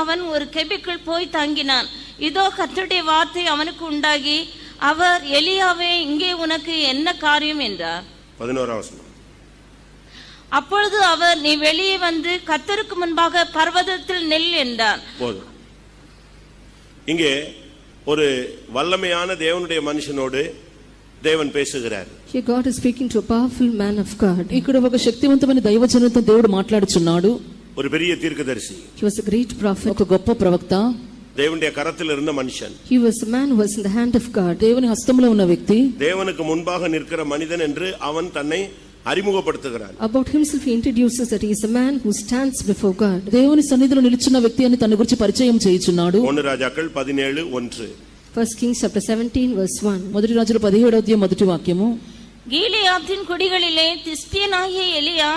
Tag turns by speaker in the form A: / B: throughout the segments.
A: அவன் ஒரு கெபிக்குள் போய் தங்கினான் இதோ கர்த்தருடைய வார்த்தை அவனுக்கு உண்டாகி அவர் எலியாவே இங்கே உனக்கு என்ன காரியம் என்றார்
B: பதினோராம் வசனம்
A: அப்பொழுது அவர் நீ வெளியே வந்து கர்த்தருக்கு முன்பாக பர்வதத்தில் நெல் என்றார்
B: போதும் இங்கே ஒரு வல்லமையான தேவனுடைய மனுஷனோடு தேவன் பேசுகிறார்
C: Here God is speaking to a powerful man of God.
D: ఇక్కడ ఒక శక్తివంతమైన దైవజనంతో దేవుడు మాట్లాడుచున్నాడు
B: ஒரு பெரிய தீர்க்கதரிசி
C: He was a great prophet.
D: ఒక గొప్ప ప్రవక్త
B: தேவனுடைய கரத்தில் இருந்த மனுஷன்
C: He was a man who was in the hand of God.
D: దేవుని హస్తంలో ఉన్న వ్యక్తి
B: தேவனுக்கு முன்பாக நிற்கிற மனிதன் என்று அவன் தன்னை அறிமுகப்படுத்துகிறான்
C: About himself, he introduces that he is a man who stands before God.
D: దేవుని సన్నిధిలో నిలుచున్న వ్యక్తి అని తన గురించి పరిచయం చేయుచున్నాడు
B: ஒன்னு ராஜாக்கள் பதினேழு ஒன்று
C: First Kings chapter 17 verse 1.
D: మొదటి రాజుల పదిహేడవ అధ్యాయం మొదటి వాక్యము
A: கீலியாத்தின் குடிகளிலே திஸ்பியனாகிய எலியா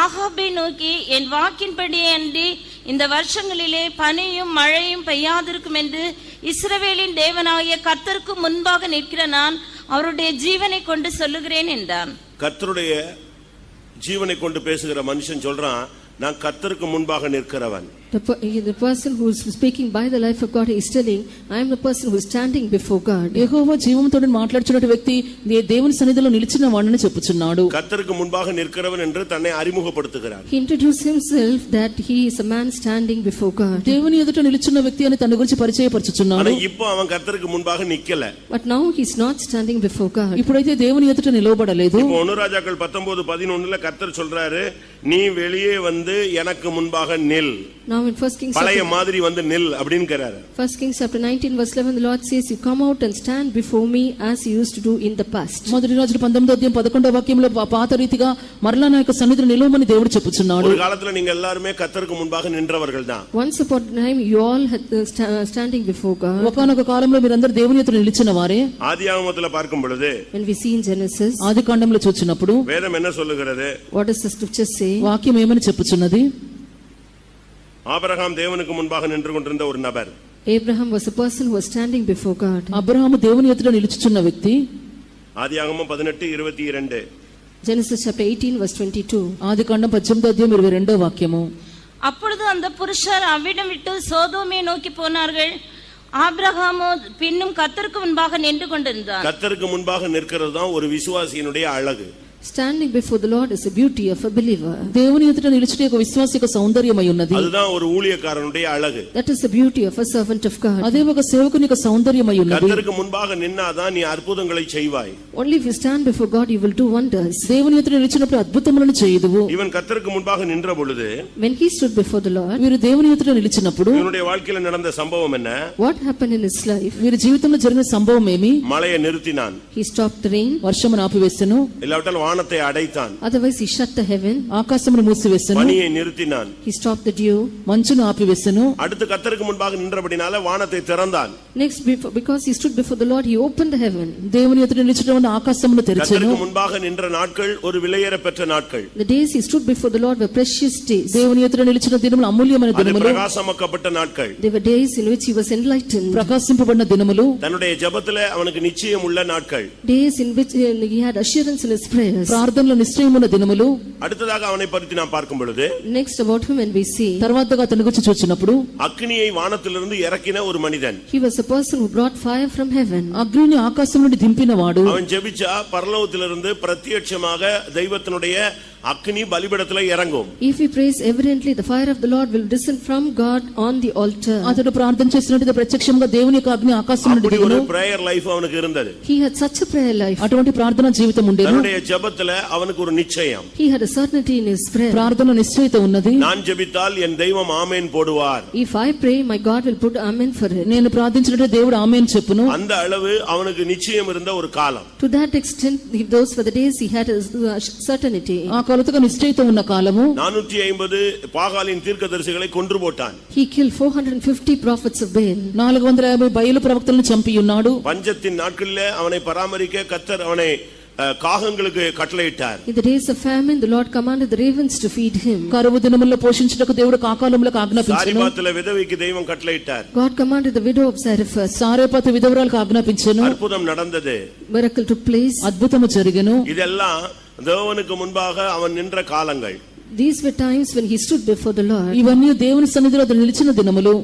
A: ஆகாபை நோக்கி என் வாக்கின்படியே அன்றி இந்த வருஷங்களிலே பனியும் மழையும் பெய்யாதிருக்கும் என்று இஸ்ரவேலின் தேவனாகிய கர்த்தருக்கு முன்பாக நிற்கிற நான் அவருடைய ஜீவனை கொண்டு சொல்லுகிறேன் என்றான்
B: கர்த்தருடைய ஜீவனை கொண்டு பேசுகிற மனுஷன் சொல்றான் நான் கர்த்தருக்கு முன்பாக நிற்கிறவன்
C: The, per- the person who is speaking by the life of God, he is telling, I am the person who is standing before God.
D: యెహోవా జీవంతో మాట్లాడుచున్న వ్యక్తి దే- దేవుని సన్నిధిలో నిలిచిన వాడిని చెప్పుచున్నాడు
B: கர்த்தருக்கு முன்பாக நிற்கிறவன் என்று தன்னை அறிமுகப்படுத்துகிறான்
C: He introduced himself that he is a man standing before God.
D: దేవుని ఎదుట నిలుచున్న వ్యక్తి అని తన గురించి
B: ஆனா
D: పరిచయపరచుచున్నాడు
B: இப்போ அவன் கர்த்தருக்கு முன்பாக நிக்கல
C: But now he is not standing before God.
D: ఇప్పుడైతే దేవుని ఎదుట నిలవబడలేదు
B: இப்போ ஒனுராஜாக்கள் பத்தொன்பது பதினொன்னுல கர்த்தர் சொல்றாரு நீ வெளியே வந்து எனக்கு முன்பாக நில்
C: Now in First Kings
B: பழைய மாதிரி வந்து நில் அப்படின்னுக்கிறாரு
C: First Kings chapter 19 verse 11 the Lord says you come out and stand before me as you used to do in the past.
D: మొదటి రాజులు పంతొమ్మిదో అధ్యాయం పదకొండో వాక్యంలో పా- పాత రీతిగా మరలా నా యొక్క సన్నిధిని నిలవమని దేవుడు చెప్పుచున్నాడు
B: ஒரு காலத்துல நீங்க எல்லாருமே கர்த்தருக்கு முன்பாக நின்றவர்கள் தான்
C: Once upon a time you all had uh, sta- uh, standing before God.
D: ఒకనొక కాలంలో మీరందరూ దేవుని ఎదుట నిలిచిన వారే
B: ஆதி பார்க்கும் பொழுது
C: When we see in Genesis
D: ఆది కాండంలో చూచినప్పుడు
B: வேதம் என்ன சொல்லுகிறது
C: what does the scripture say?
D: వాక్యం ఏమని చెప్పుచున్నది
B: ஆபிரகாம் தேவனுக்கு முன்பாக நின்று கொண்டிருந்த ஒரு நபர்
C: Abraham was a person who was standing before God.
D: Abraham దేవుని ఎదుట నిలుచుచున్న వ్యక్తి
B: ஆதியாகமம் பதினெட்டு இருபத்தி இரண்டு
C: Genesis chapter 18 verse 22.
D: ఆది కాండం పద్దెనిమిదో అధ్యాయం ఇరవై రెండో వాక్యము
A: அப்பொழுது அந்த புருஷர் அவ்விடம் விட்டு சோதோமை நோக்கி போனார்கள் ஆபிரகாமோ பின்னும் கர்த்தருக்கு முன்பாக நின்று கொண்டிருந்தான்
B: கர்த்தருக்கு முன்பாக நிற்கிறது தான் ஒரு விசுவாசியினுடைய அழகு
C: Standing before the Lord is the beauty of a believer.
D: దేవుని ఎదుట నిలిచిన యొక్క విశ్వాస యొక్క సౌందర్యమై ఉన్నది
B: அதுதான் ஒரு ஊழியக்காரனுடைய அழகு
C: That is the beauty of a servant of God.
D: అదే ఒక సేవకుని యొక్క సౌందర్యమై ఉన్నది
B: கர்த்தருக்கு முன்பாக நின்னாதான் நீ அற்புதங்களை செய்வாய்
C: Only if you stand before God you will do wonders.
D: దేవుని ఎదుట నిలిచినప్పుడు అద్భుతములను చేయదువు
B: இவன் கர்த்தருக்கு முன்பாக நின்ற பொழுது
C: When he stood before the Lord
D: వీరు దేవుని ఎదుట నిలిచినప్పుడు
B: இவனுடைய வாழ்க்கையில நடந்த சம்பவம் என்ன
C: what happened in his life?
D: వీరి జీవితంలో జరిగిన సంభవం ఏమి
B: மழையை நிறுத்தினான்
C: He stopped the rain
D: వర్షమును ఆపివేసెను
B: இல்லாவிட்டால் வானத்தை அடைத்தான்
C: otherwise he shut the heaven
D: ఆకాశమును మూసివేసెను
B: பனியை நிறுத்தினான்
C: He stopped the dew.
D: మంచును ఆపివేసెను
B: அடுத்து கர்த்தருக்கு முன்பாக நின்றபடினால வானத்தை திறந்தான்
C: Next, before, because he stood before the Lord, he opened the heaven.
D: దేవుని ఎదుట నిలిచడం వలన ఆకాశమును తెరిచెను
B: கர்த்தருக்கு முன்பாக நின்ற நாட்கள் ஒரு விலையேற பெற்ற நாட்கள்
C: The days he stood before the Lord were precious days.
D: దేవుని ఎదుట నిలిచిన దినములు అమూల్యమైన
B: அது
D: దినములు
B: பிரகாசமாக்கப்பட்ட நாட்கள்
C: They were days in which he was enlightened,
D: ప్రకాశింపబడిన దినములు
B: தன்னுடைய ஜெபத்துல அவனுக்கு நிச்சயம் உள்ள நாட்கள்
C: days in which uh, he had assurance in his prayers.
D: ప్రార్థనలో నిశ్చయమున్న దినములు
B: அடுத்ததாக அவனை பற்றி நான் பார்க்கும் பொழுது
C: Next, about him, when we see,
D: తర్వాతగా అతని గురించి చూచినప్పుడు
B: அக்னியை வானத்திலிருந்து இறக்கின ஒரு மனிதன்
C: he was a person who brought fire from heaven.
D: అగ్నిని ఆకాశం నుండి దింపినవాడు
B: அவன் ஜெபிச்சா பரலோகத்திலிருந்து பிரத்யட்சமாக தெய்வத்தினுடைய அக்னி பலிபடத்துல இறங்கும்
C: If he prays evidently, the fire of the Lord will descend from God on the altar.
D: అతడు ప్రార్థన చేసినట్టు ప్రత్యక్షంగా దేవుని యొక్క అగ్ని ఆకాశం నుండి
B: அப்படி
D: దిగును
B: ஒரு பிரேயர் லைஃப் அவனுக்கு இருந்தது
C: He had such a prayer life.
D: అటువంటి ప్రార్థన జీవితం ఉండేను
B: தன்னுடைய ஜெபத்துல அவனுக்கு ஒரு நிச்சயம்
C: He had a certainty in his prayer.
D: ప్రార్థన నిశ్చయిత ఉన్నది
B: நான் ஜெபித்தால் என் தெய்வம் ஆமேன் போடுவார்
C: If I pray, my God will put amen for it.
D: నేను ప్రార్థించినట్టు దేవుడు ఆమె చెప్పును
B: அந்த அளவு அவனுக்கு நிச்சயம் இருந்த ஒரு காலம்
C: To that extent, if those were the days he had a uh, certainty.
D: ఆ కొలతగా నిశ్చయిత ఉన్న కాలము
B: நானூற்றி ஐம்பது பாகாலின் தீர்க்கதரிசிகளை கொன்று போட்டான்
C: He killed 450 prophets of Baal.
D: నాలుగు వందల యాభై బయలు ప్రవక్తలను చంపి ఉన్నాడు
B: பஞ்சத்தின் நாட்களிலே அவனை பராமரிக்க கத்தர் அவனை அஹ், காகங்களுக்கு கட்டளையிட்டார்
C: In the days of famine, the Lord commanded the ravens to feed him.
D: కరువు దినముల్లో పోషించుటకు దేవుడు కాకాలములకు ఆజ్ఞాపించను
B: சாரிபாத்துல விதவைக்கு தெய்வம் கட்டளையிட்டார்
C: God commanded the widow of Zarephath.
D: సారేపాత విధవరాలకు ఆజ్ఞాపించను
B: அற்புதம் நடந்தது
C: Miracle took place.
D: అద్భుతము జరిగెను
B: இதெல்லாம் தேவனுக்கு முன்பாக அவன் நின்ற காலங்கள்
C: These were times when he stood before the Lord.
D: ఇవన్నీ దేవుని సన్నిధిలో అతడు నిలిచిన దినములు